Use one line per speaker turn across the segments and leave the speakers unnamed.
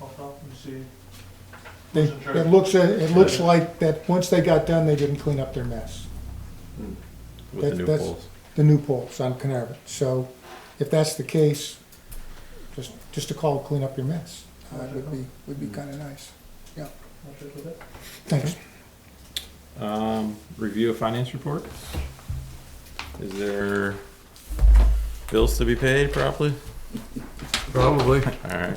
I'll stop and see.
They,
Wasn't sure.
it looks, it looks like that, once they got done, they didn't clean up their mess,
with
That-
the new
that's-
poles.
the new poles on Carnarvon. So if that's the case, just, just to call, clean up your mess, uh, would be, would be kinda nice.
I'll check with it.
Thanks.
Um, review of finance report. Is there bills to be paid properly?
Probably.
All right.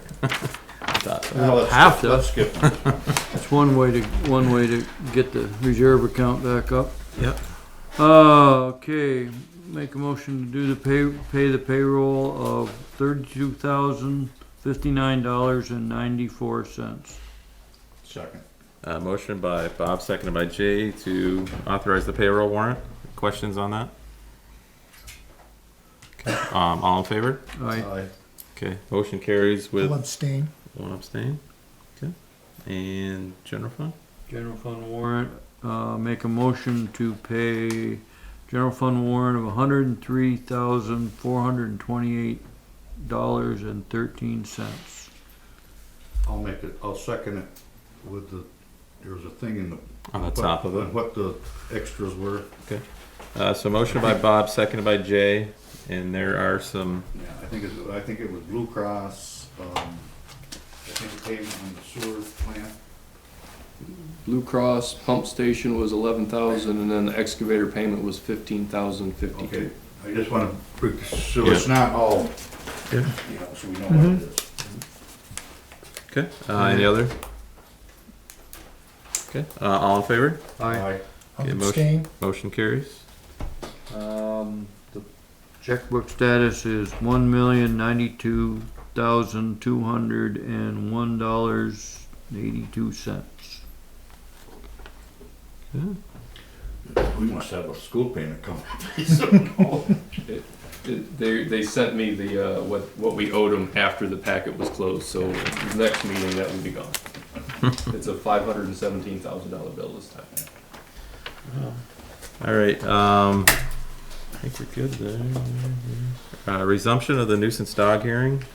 Thought so.
Well,
Have to.
Let's skip.
That's one way to, one way to get the reserve account back up.
Yep.
Uh, okay, make a motion to do the pay, pay the payroll of thirty-two thousand, fifty-nine dollars and ninety-four cents.
Second.
Uh, motion by Bob, seconded by Jay to authorize the payroll warrant. Questions on that? Okay, Um, all in favor?
Alright,
Aye.
Okay, motion carries with
I'll abstain.
one abstain. Okay, and general fund?
general fund warrant, uh, make a motion to pay general fund warrant of hundred and three thousand, four hundred and twenty-eight dollars and thirteen cents.
I'll make it, I'll second it with the, there was a thing in the.
On the top of it.
on What the extras were.
Uh, so motion by Bob, seconded by Jay, and there are some,
Yeah, I think it, I think it was Blue Cross, um, I think payment on the sewer plant.
Blue Cross pump station was eleven thousand, and then the excavator payment was fifteen thousand
Okay,
fifty-two.
I just wanna, pre- so it's not all, you
Yeah.
know, so we know what it is.
okay, uh, any other? Okay, uh, all in favor?
Aye.
I'll
Okay, motion.
abstain.
Motion carries.
Um, the checkbook status is one million ninety-two thousand two hundred and one dollars eighty-two cents.
We must have a school payment coming.
It- They, they sent me the, uh, what, what we owed them after the packet was closed, so next meeting, that will be gone. It's a five hundred and seventeen thousand dollar bill this time.
All right, um, I think we're good there. Uh, resumption of the nuisance dog hearing.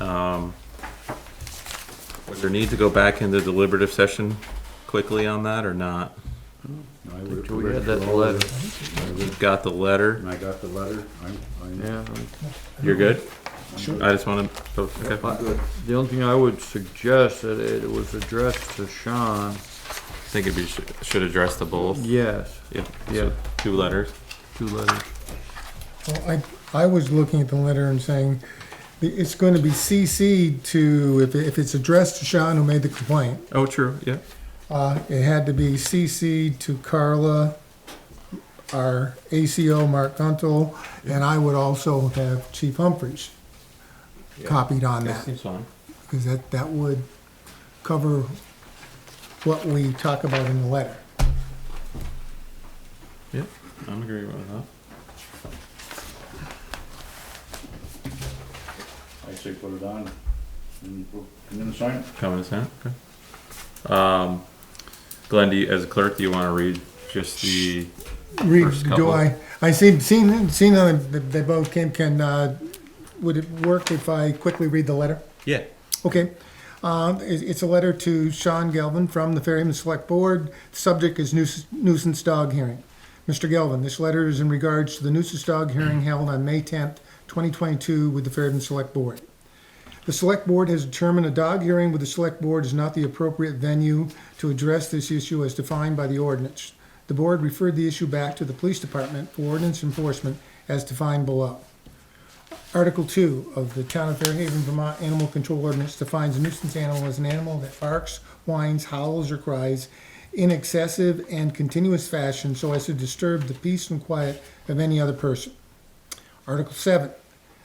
Um, was there need to go back into deliberative session quickly on that or not?
I would
Oh,
Until we had
read
that
all of
letter,
it,
We've got the letter.
And I got the letter, I'm, I'm.
yeah.
You're good?
Sure.
I just wanna, oh, okay.
I'm good.
The only thing I would suggest that it was addressed to Sean,
I think it should, should address the both.
yes,
Yeah,
yeah,
two letters.
two letters.
Well, I, I was looking at the letter and saying, it's gonna be CC'd to, if, it- if it's addressed to Sean who made the complaint,
Oh, true, yeah.
Uh, it had to be CC'd to Carla, our ACO, Mark Guntle, and I would also have Chief Humphreys copied on that,
seems fine.
because that, that would cover what we talk about in the letter.
I'm agreeing with that.
I say put it on and we'll come in and sign it.
Common assent, okay. Um, Glenn, do you, as a clerk, do you wanna read just the,
Read,
First
do
couple.
I, I seen, seen, seen on, the- they both came, can, uh, would it work if I quickly read the letter?
yeah,
Okay. Um, it- It's a letter to Sean Galvin from the Fairhaven Select Board. Subject is nuisance- nuisance dog hearing. Mr. Galvin, this letter is in regards to the nuisance dog hearing held on May 10th, 2022 with the Fairhaven Select Board. The Select Board has determined a dog hearing with the Select Board is not the appropriate venue to address this issue as defined by the ordinance. The board referred the issue back to the Police Department for ordinance enforcement as defined below. Article two of the Town of Fairhaven, Vermont Animal Control Ordinance defines a nuisance animal as an animal that barks, whines, howls, or cries in excessive and continuous fashion so as to disturb the peace and quiet of any other person. Article seven,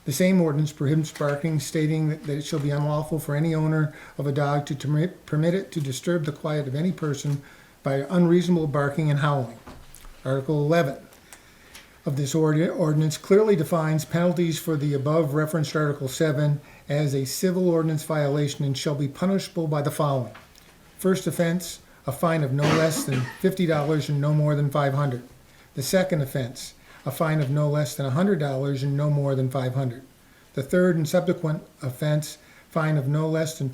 the same ordinance prohibits barking, stating that, that it shall be unlawful for any owner of a dog to permit, permit it to disturb the quiet of any person by unreasonable barking and howling. Article eleven, of this ordi- ordinance clearly defines penalties for the above referenced Article 7 as a civil ordinance violation and shall be punishable by the following. First offense, a fine of no less than $50 and no more than 500. The second offense, a fine of no less than $100 and no more than 500. The third and subsequent offense, fine of no less than